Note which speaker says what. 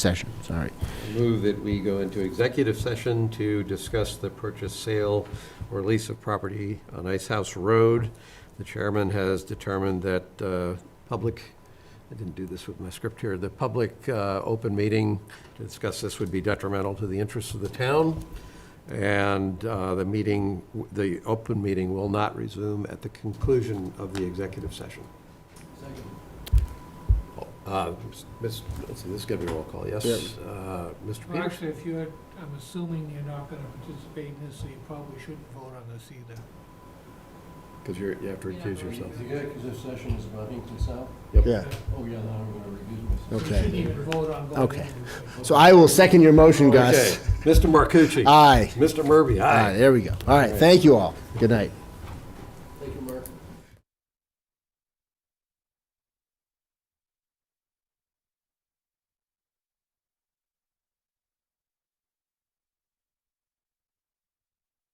Speaker 1: session, sorry.
Speaker 2: Move that we go into executive session to discuss the purchase, sale, or lease of property on Ice House Road. The chairman has determined that uh, public, I didn't do this with my script here, the public uh, open meeting to discuss this would be detrimental to the interests of the town, and uh, the meeting, the open meeting will not resume at the conclusion of the executive session. Uh, Ms., let's see, this is gonna be a roll call, yes?
Speaker 1: Yeah.
Speaker 2: Uh, Mr.
Speaker 3: Well,
Speaker 2: Peters?
Speaker 3: actually, if you're, I'm assuming you're not gonna participate in this, so you probably shouldn't vote on this either.
Speaker 2: Because you're, you have to recuse yourself.
Speaker 4: The executive session is about Hinkley South?
Speaker 1: Yeah,
Speaker 4: Oh, yeah, now I'm gonna recuse myself.
Speaker 3: You shouldn't
Speaker 1: okay.
Speaker 3: even vote on going
Speaker 1: Okay.
Speaker 3: into it.
Speaker 1: So I will second your motion,
Speaker 2: Okay,
Speaker 1: Gus.
Speaker 2: Mr. Marcucci.
Speaker 1: Aye.
Speaker 2: Mr. Murphy,
Speaker 1: All right,
Speaker 2: aye.
Speaker 1: there we go. All right, thank you all. Good night.